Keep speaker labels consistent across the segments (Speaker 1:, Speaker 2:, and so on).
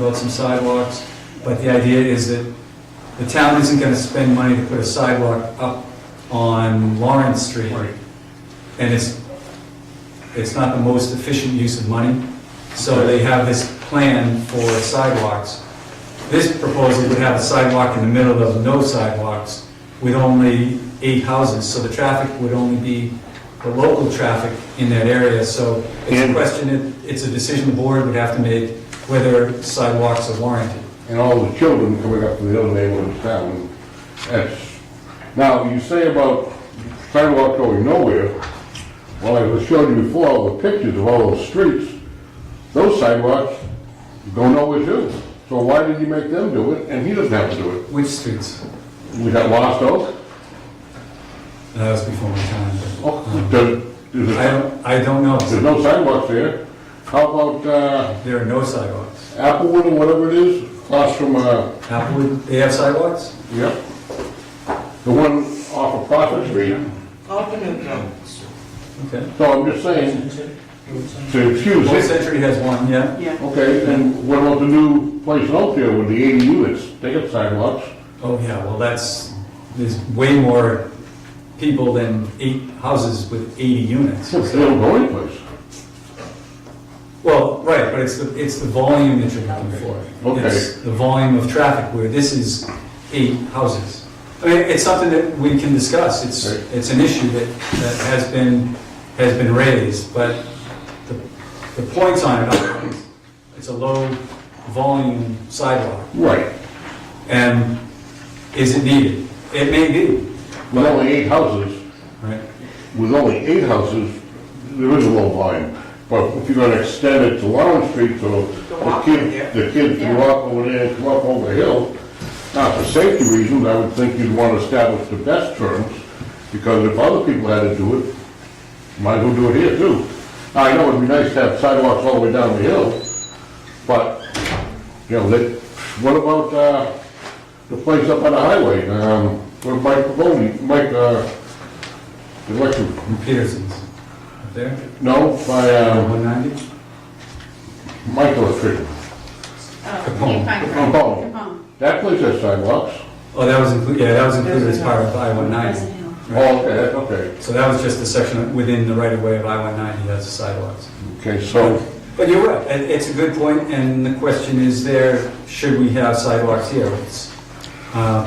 Speaker 1: about some sidewalks, but the idea is that the town isn't gonna spend money to put a sidewalk up on Lawrence Street.
Speaker 2: Right.
Speaker 1: And it's, it's not the most efficient use of money, so they have this plan for sidewalks. This proposal would have a sidewalk in the middle of no sidewalks with only eight houses, so the traffic would only be the local traffic in that area, so it's a
Speaker 2: And-
Speaker 1: question, it- it's a decision the board would have to make whether sidewalks are warranted.
Speaker 2: and all the children coming up from the other neighborhood of town. That's, now, you say about sidewalk going nowhere, well, I was showing you before, all the pictures of all those streets, those sidewalks go nowhere too. So why did you make them do it, and he doesn't have to do it?
Speaker 1: Which streets?
Speaker 2: We got Lost Oak,
Speaker 1: That was before my time. but,
Speaker 2: oh,
Speaker 1: um,
Speaker 2: there- there's,
Speaker 1: I
Speaker 2: a-
Speaker 1: don't, I don't know.
Speaker 2: there's no sidewalks there. How about uh,
Speaker 1: There are no sidewalks.
Speaker 2: Applewood or whatever it is, across from, uh,
Speaker 1: Applewood, they have sidewalks?
Speaker 2: yep, the one off of Prospect Street?
Speaker 3: Alternate route.
Speaker 1: Okay.
Speaker 2: So I'm just saying, to excuse
Speaker 1: Old
Speaker 2: it,
Speaker 1: Century has one, yeah.
Speaker 3: Yeah.
Speaker 2: okay, and what about the new place in Oakdale with the eighty units, they got sidewalks?
Speaker 1: Oh, yeah, well, that's, there's way more people than eight houses with 80 units.
Speaker 2: They don't go anyplace.
Speaker 1: Well, right, but it's the, it's the volume that you're looking for.
Speaker 2: Okay.
Speaker 1: It's the volume of traffic, where this is eight houses. I mean, it's something that we can discuss, it's,
Speaker 2: Right.
Speaker 1: it's an issue that, that has been, has been raised, but the, the points on it are, it's a low volume sidewalk,
Speaker 2: Right,
Speaker 1: and is it needed? It may be,
Speaker 2: with only eight houses,
Speaker 1: right?
Speaker 2: with only eight houses, there is a low volume. But if you're gonna extend it to Lawrence Street, so the kid, the kids can walk over there and come up over the hill, now for safety reasons, I would think you'd wanna establish the best terms, because if other people had to do it, might as well do it here too. I know it'd be nice to have sidewalks all the way down the hill, but, you know, that, what about, uh, the place up on the highway, um, where Mike Pavoni, Mike, uh, the electric
Speaker 1: From Peterson's, up there,
Speaker 2: no, by um,
Speaker 1: 190?
Speaker 2: Michael Street.
Speaker 1: Capone.
Speaker 2: Capone. That place has sidewalks.
Speaker 1: Oh, that was included, yeah, that was included as part of I-190.
Speaker 2: Oh, okay, that's okay.
Speaker 1: So that was just the section within the right-of-way of I-190, that's the sidewalks.
Speaker 2: Okay, so,
Speaker 1: But you're right, and it's a good point, and the question is there, should we have sidewalks here? It's, uh,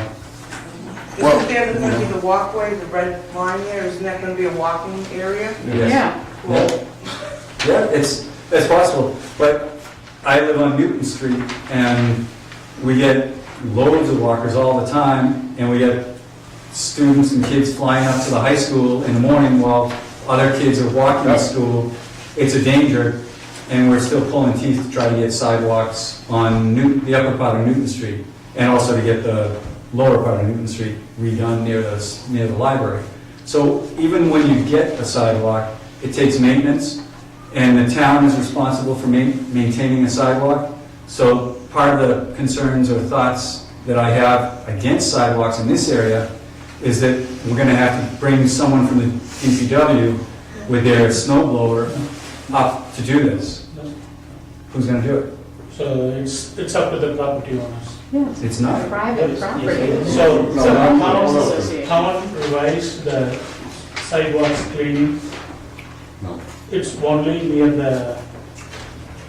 Speaker 2: Well-
Speaker 3: Isn't there going to be the walkway, the red line there, isn't that going to be a walking area?
Speaker 1: yes. Yeah, Yeah, it's, it's possible, but I live on Newton Street, and we get loads of walkers all the time, and we get students and kids flying up to the high school in the morning while other kids are walking to
Speaker 2: Yeah.
Speaker 1: school. It's a danger, and we're still pulling teeth to try to get sidewalks on Newton, the upper part of Newton Street, and also to get the lower part of Newton Street redone near the, s- near the library. So even when you get a sidewalk, it takes maintenance, and the town is responsible for ma- maintaining a sidewalk. So part of the concerns or thoughts that I have against sidewalks in this area is that we're gonna have to bring someone from the DPW with their snow blower up to do this. Who's gonna do it?
Speaker 4: So it's, it's up to the property owners.
Speaker 1: It's not.
Speaker 5: Private property.
Speaker 4: So,
Speaker 2: No,
Speaker 4: so
Speaker 2: no, no,
Speaker 4: town,
Speaker 2: no.
Speaker 4: town revised the sidewalks cleaning.
Speaker 2: No.
Speaker 4: It's only near the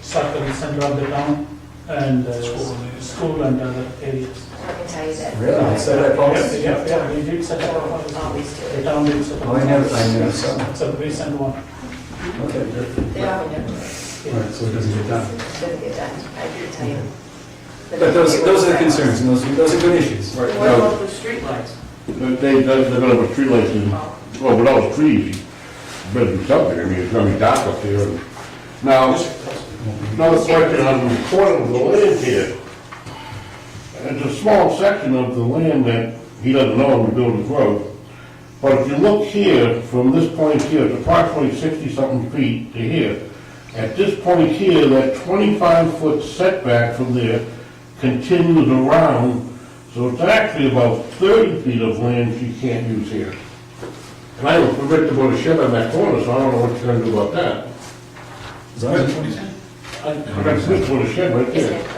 Speaker 4: circle center of the town and uh, school and other areas.
Speaker 5: I can tell you that.
Speaker 1: Really? Is that a policy?
Speaker 4: Yeah, yeah, we did set up a policy.
Speaker 5: Always do
Speaker 4: The
Speaker 5: it.
Speaker 4: town did set up. a
Speaker 1: Oh, I never, I
Speaker 4: policy.
Speaker 1: never saw that.
Speaker 4: It's a recent one.
Speaker 1: Okay.
Speaker 5: They all do it.
Speaker 1: All right, so it doesn't get done.
Speaker 5: It's gonna get done, I can tell you.
Speaker 1: But those, those are the concerns, and those, are- those are good issues.
Speaker 2: right
Speaker 3: What
Speaker 2: now,
Speaker 3: about the streetlights?
Speaker 2: uh, they, they're gonna have a tree light, in- well, with all the trees, better do something, I mean, it's gonna be dark up there. Now, another question on the corner of the land here. It's a small section of the land that he doesn't own, to build his road. But if you look here, from this point here, it's approximately sixty-something feet to here. At this point here, that twenty-five foot setback from there continues around, so it's actually about thirty feet of land you can't use here. And I don't predict to put a shed on that corner, so I don't know what you're gonna do about that.
Speaker 1: Is that-
Speaker 4: And
Speaker 2: I got this one shed right
Speaker 5: Is
Speaker 2: there.
Speaker 5: it?